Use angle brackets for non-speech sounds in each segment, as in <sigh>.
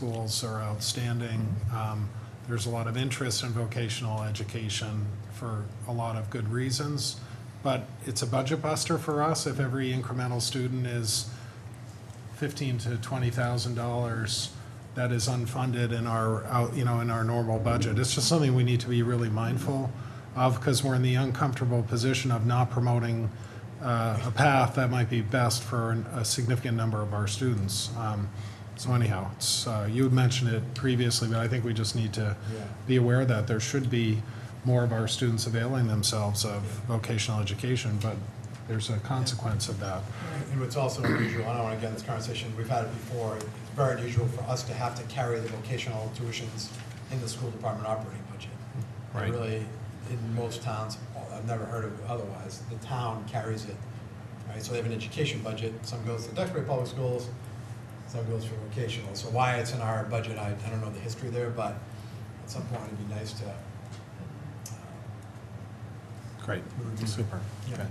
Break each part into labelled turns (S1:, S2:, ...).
S1: schools are outstanding. Um, There's a lot of interest in vocational education for a lot of good reasons, but it's a budget buster for us if every incremental student is fifteen to twenty thousand dollars that is unfunded in our, out- you know, in our normal budget. It's just something we need to be really mindful of because we're in the uncomfortable position of not promoting uh, a path that might be best for an- a significant number of our students. Um, So anyhow, it's, uh, you had mentioned it previously, but I think we just need to be aware that there should be more of our students availing themselves of vocational education, but there's a consequence of that.
S2: And what's also unusual, and I want to get in this conversation, we've had it before, it's very unusual for us to have to carry the vocational tuitions in the school department operating budget. It
S1: Right.
S2: Really, in most towns, I've never heard of it otherwise, the town carries it, right? So they have an education budget, some goes to Duxbury Public Schools, some goes for vocational. So why it's in our budget, I, I don't know the history there, but at some point it'd be nice to,
S1: Great, super.
S2: Yeah.
S1: Okay.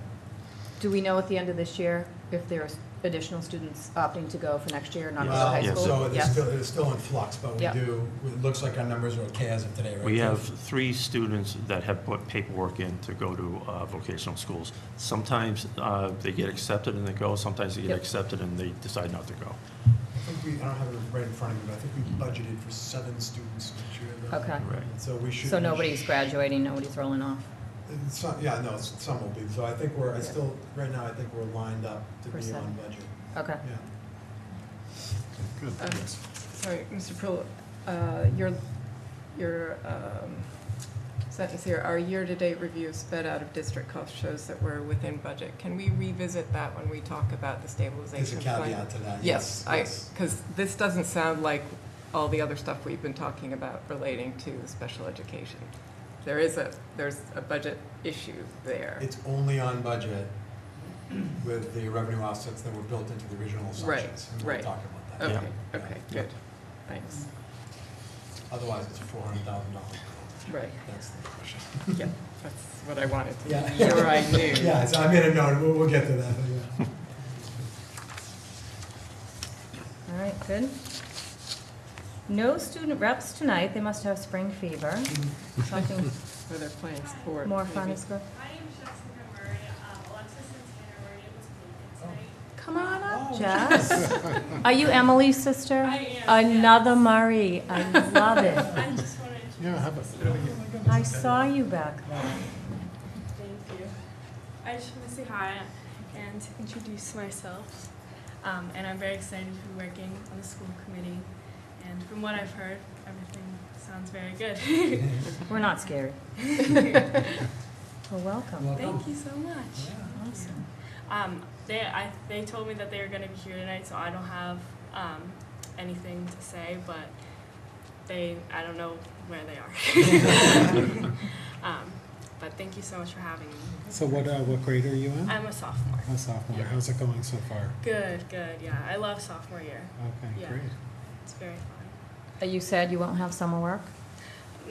S3: Do we know at the end of this year if there's additional students opting to go for next year, not go to
S2: Well,
S3: high school?
S2: So it's
S3: Yes.
S2: still, it's still in flux, but we
S3: Yeah.
S2: do, it looks like our numbers are okay as of today, right?
S4: We
S2: Jeff?
S4: have three students that have put paperwork in to go to uh, vocational schools. Sometimes uh, they get accepted and they go, sometimes they get
S3: Yep.
S4: accepted and they decide not to go.
S2: I think we, I don't have it right in front of me, but I think we budgeted for seven students each year. though.
S3: Okay.
S4: Right.
S2: So we should.
S3: So nobody's graduating, nobody's rolling off?
S2: and Some, yeah, no, s- some will be, so I think we're, I still, right now, I think we're lined up to
S3: For
S2: be
S3: seven.
S2: on budget,
S3: Okay.
S2: yeah.
S1: Good.
S5: Uh, Sorry, Mr. Prill, uh, your, your um, sentence here, our year-to-date review of sped out of district cost shows that we're within budget. Can we revisit that when we talk about the
S2: There's a
S5: stabilization plan?
S2: caveat to that, yes.
S5: Yes, I, because this doesn't sound like all the other stuff we've been talking about relating to special education. There is a, there's a budget issue there.
S2: It's only on budget with the revenue offsets that were built into the original
S5: Right,
S2: assumptions. and
S5: right.
S2: We'll talk about that.
S4: yeah.
S5: Okay, okay, good, thanks.
S2: Otherwise, it's four hundred thousand dollars.
S5: Right,
S2: That's the question.
S5: yeah, that's what I wanted to
S2: Yeah.
S5: be
S2: <laughs>
S5: sure I knew.
S2: Yeah, so I made a note, we'll, we'll get to that, but yeah.
S5: <laughs>
S3: All right, good. No student reps tonight, they must have spring
S2: <laughs>
S3: fever. Something
S5: Where they're playing sport.
S3: more fun
S5: maybe.
S3: is good.
S6: My name is Jessica Murray. Um, Alexis and Tanner were able to make it tonight.
S3: Come on
S2: Oh.
S3: up, Jess.
S2: <laughs>
S3: Are you Emily's sister?
S6: I am,
S3: Oh. Another Marie, I love it.
S6: I just wanted to.
S1: Yeah, how about-
S3: I saw you back there.
S6: Thank you. I just want to say hi and introduce myself. Um, and I'm very excited to be working on the school committee. And from what I've heard, everything sounds very good. <laughs>
S3: We're not scary. <laughs> Well, welcome.
S6: Thank you so much.
S3: Awesome.
S6: Um, they, I, they told me that they were going to be here tonight, so I don't have um, anything to say, but they, I don't know where they are. um, but thank you so much for having me.
S1: So what, uh, what grade are you in?
S6: I'm a sophomore.
S1: A sophomore. How's it going so far?
S6: Good, good, yeah. I love sophomore year.
S1: Okay,
S6: Yeah.
S1: great.
S6: It's very fun.
S3: Are you sad you won't have summer work?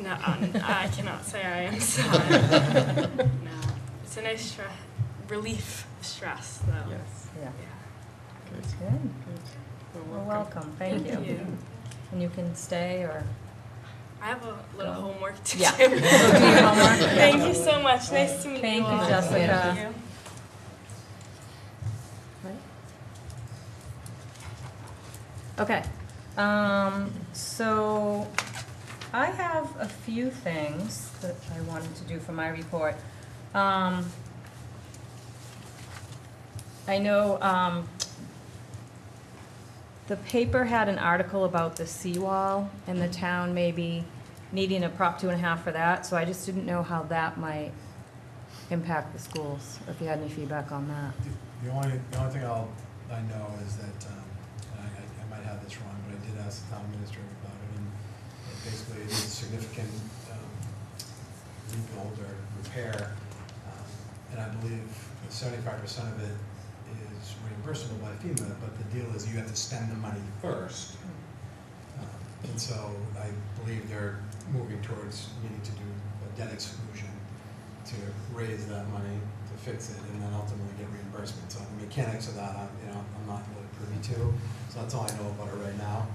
S6: No, um, I cannot say I am <laughs> sad. no. It's a nice stre- relief of stress, though.
S5: Yes,
S3: Yeah.
S6: Yeah.
S5: good,
S3: Good.
S5: good.
S3: Well, welcome. Thank
S6: Thank
S3: you.
S6: you.
S3: And you can stay or?
S6: I have a little
S3: Go.
S6: homework to
S3: Yeah. <laughs>
S6: do.
S3: Do your homework.
S6: Thank you so much. Nice to meet
S3: Thank
S6: you
S3: you,
S6: all.
S3: Jessica.
S6: Thank you.
S3: Right. Okay, um, so I have a few things that I wanted to do for my report. Um, I know, um, the paper had an article about the seawall and the town maybe needing a prop two and a half for that, so I just didn't know how that might impact the schools, if you had any feedback on that.
S2: The only, the only thing I'll, I know is that, um, and I, I- I might have this wrong, but I did ask the town administrator about it, and it basically it is a significant, um, rebuild or repair. um, And I believe seventy-five percent of it is reimbursable by FEMA, but the deal is you have to spend the money first. Um, And so I believe they're moving towards needing to do a debt exclusion to raise that money to fix it and then ultimately get reimbursement. So the mechanics of that, I'm, you know, I'm not really privy to, so that's all I know about it right now.